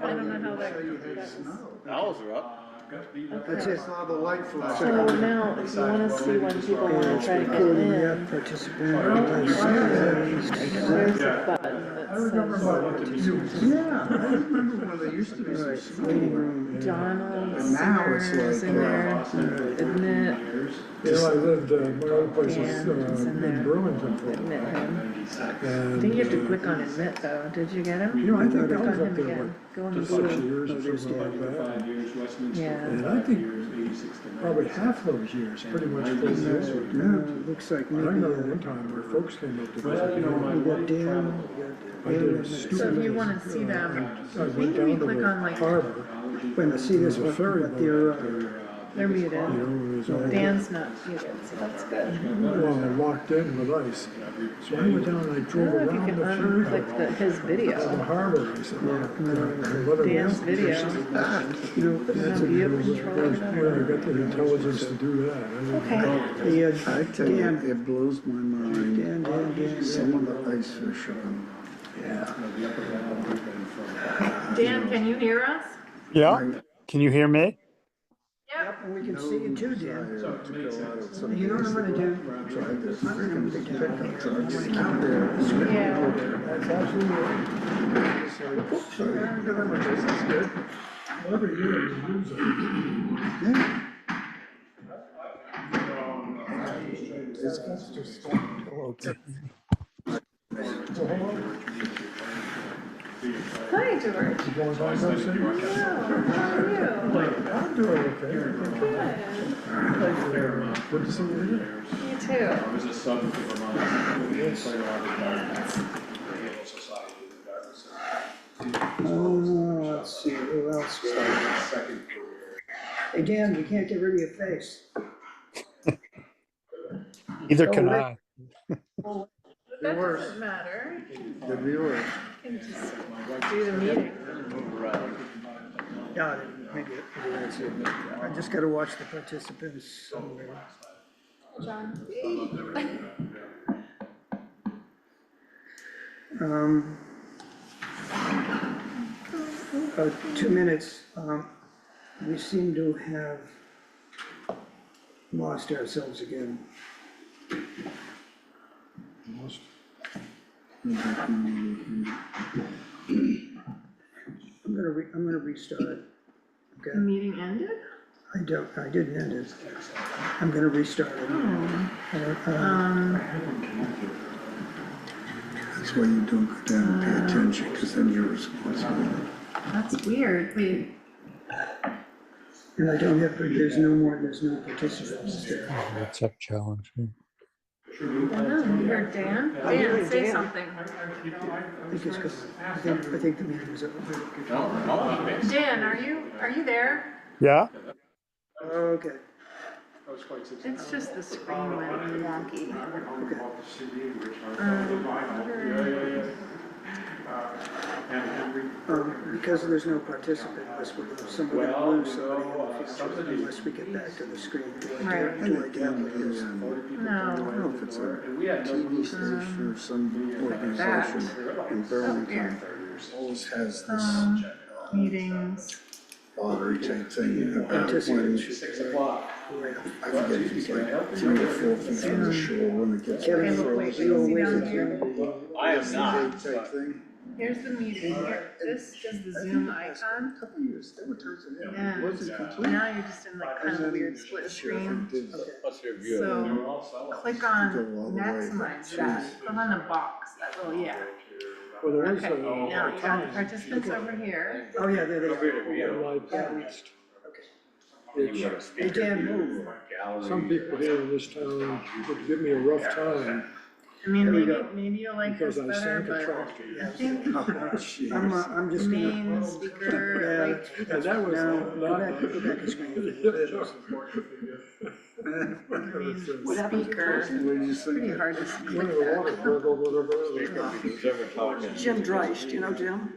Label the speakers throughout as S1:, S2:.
S1: I don't know how that-
S2: Say you had
S1: that was-
S2: snow.
S3: Owls are up.
S2: That's just not the light flash.
S1: So now, if you wanna see when people wanna try to get in, there's a button that
S2: I remember
S1: says
S2: when, yeah, I remember when there used to be some snow.
S1: Donald's
S2: And now it's
S1: Cigars
S2: like,
S1: in
S2: uh,
S1: there, isn't it?
S4: You know, I lived, uh, my old place
S1: Yeah, it's
S4: was, uh,
S1: in there.
S4: in Burlington for a while.
S1: Admit him. I
S4: And,
S1: think you have to
S4: uh,
S1: click on admit though, did you get him?
S4: You know, I think
S1: Click
S4: I was
S1: on
S4: up
S1: him
S4: there
S1: again,
S4: like
S1: go in the
S4: six
S1: blue.
S4: years or something like that.
S1: Yeah.
S4: And I think probably half those years, pretty much full years.
S5: Looks like
S4: I
S5: maybe
S4: remember one
S5: uh,
S4: time where folks came up to
S6: Well, you know,
S4: visit.
S6: my
S5: you
S6: wife
S5: walk down,
S6: traveled.
S4: I did a
S1: So if you
S4: stupid,
S1: wanna see them,
S4: I went
S1: Maybe
S4: down
S1: click
S4: to
S1: on,
S4: the
S1: like-
S4: harbor,
S5: when I see this
S4: there's a
S5: one,
S4: ferry
S5: but
S4: boat
S5: they're,
S4: there.
S5: uh,
S1: they're
S4: You know,
S1: muted,
S4: and it was all,
S1: Dan's not muted, so that's good.
S4: well, locked in with ice. So I went down and I
S1: I
S4: drove
S1: don't know if you
S4: around
S1: can
S4: the ferry
S1: unclick the,
S4: boat
S1: his
S4: to the
S1: video,
S4: harbor. I said, well, you know, I let it
S1: Dan's
S4: rest.
S1: video.
S5: you know,
S4: That's
S1: Now,
S4: a,
S1: do you have
S4: where's,
S1: control over that?
S4: where I got the intelligence to do that. I didn't-
S1: Okay,
S5: the, uh,
S2: I tell you, it blows my mind,
S5: Dan, Dan, Dan, Dan.
S2: some of the ice fish on.
S1: Dan, can you hear us?
S7: Yeah, can you hear me?
S5: Yep, and we can see you too, Dan. You know
S2: You
S5: what I'm gonna do?
S2: Tried their freaking pickup trucks out there. It's really
S1: Yeah.
S2: cool. That's absolutely right. It's like, oops, sorry, I haven't done my business, that's good.
S4: Every year you lose it.
S1: Hi, George.
S4: You going by those things?
S1: Hello, how are
S4: I'm doing okay.
S1: you? Good,
S4: Good to see you here.
S1: you too.
S6: I was a sub to Vermont. Yes. Played a lot of darkness. The Yale Society of Darkness.
S5: Oh, let's see, who else?
S6: Started my second career.
S5: Hey, Dan, you can't get rid of your face.
S7: Neither
S5: Oh,
S7: can
S5: Rick.
S7: I.
S1: But that doesn't matter,
S2: The viewer.
S1: you can just do the meeting.
S5: Got it, maybe, maybe that's it. I just gotta watch the participants somewhere.
S1: John,
S5: Um, uh, two minutes, um, we seem to have lost ourselves again. I'm gonna re, I'm gonna restart it.
S1: the
S5: Okay,
S1: meeting ended?
S5: I don't, I didn't end it. I'm gonna restart it.
S1: Oh. Hmm,
S5: I don't- uh,
S1: Um,
S2: That's why you don't go down and pay attention, because then you're responsible.
S1: that's weird, wait,
S5: And I don't have, there's no more, there's no participants there.
S7: That's a challenge. yeah.
S1: that is weird, Dan, Dan, say something.
S5: I think it's 'cause- I think, I think the meeting's over.
S6: No, I'm not based.
S1: Dan, are you, are you there?
S7: Yeah,
S5: Okay,
S6: I was quite successful.
S1: It's just the screen went wonky.
S5: okay. Um, because there's no participant list, we're gonna, somebody
S6: Well,
S5: will lose
S6: you know,
S5: somebody in
S6: uh,
S5: the future
S6: somebody-
S5: unless we get back to the screen. Do I do-
S1: Right.
S2: And
S5: Do I
S2: again,
S5: do
S2: the,
S5: this?
S2: um, I
S1: No,
S2: don't know if it's a
S6: And we had no
S2: TV
S6: rules.
S2: station or some
S1: Um, that. Oh,
S2: organization in Burlington, always has this
S1: um, meetings,
S2: lottery type thing about when,
S6: Six o'clock.
S5: Oh,
S2: I forget if it's like three or four feet from
S1: Um,
S2: the shore when it gets.
S5: Kevin,
S1: look, wait,
S2: frozen.
S1: wait, you see down here?
S6: I am not,
S2: Type thing.
S1: here's the meeting, here, this is the Zoom icon,
S2: A Couple years, they were turning it down.
S1: and
S2: It wasn't complete.
S1: now you're just in like kind of a weird split screen.
S3: Plus your view.
S6: they
S1: So
S6: were all sellouts.
S1: click
S2: Go
S1: on
S2: all the way.
S1: maximize that, click on the box, that little, yeah.
S4: Well, there is
S1: Okay,
S4: a,
S1: now you got the
S4: a
S1: participants over here.
S5: Oh, yeah, there they are.
S4: live broadcast.
S3: You got a
S5: Hey,
S3: speaker
S5: Dan,
S3: view,
S5: move.
S3: gallery.
S4: Some people here in this town would give me a rough time
S1: I mean,
S5: There we
S1: maybe,
S5: go.
S1: maybe you'll like this
S4: because I sank a
S1: better,
S4: truck.
S1: but I think
S2: Oh, jeez.
S5: I'm, uh, I'm just gonna,
S1: main speaker, like,
S4: And that was
S5: no, go back,
S4: not.
S5: go back to screen.
S1: main speaker,
S2: What did you say?
S1: pretty hard to
S4: Went
S1: split
S4: to the
S1: that.
S4: water, blah, blah, blah, blah, blah.
S3: Who's ever talking?
S8: Jim Dreist, you know Jim?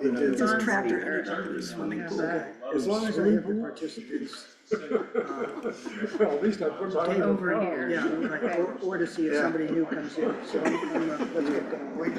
S2: They did.
S8: His
S1: John
S8: tractor
S1: Speaker.
S8: ended up in the swimming
S1: Yeah,
S8: pool.
S1: that-
S5: As long as I have the participants,
S4: Well, at least I put my.
S1: Over here.
S5: yeah, right, or, or to see if somebody new comes in, so I'm, I'm, uh, let's get going.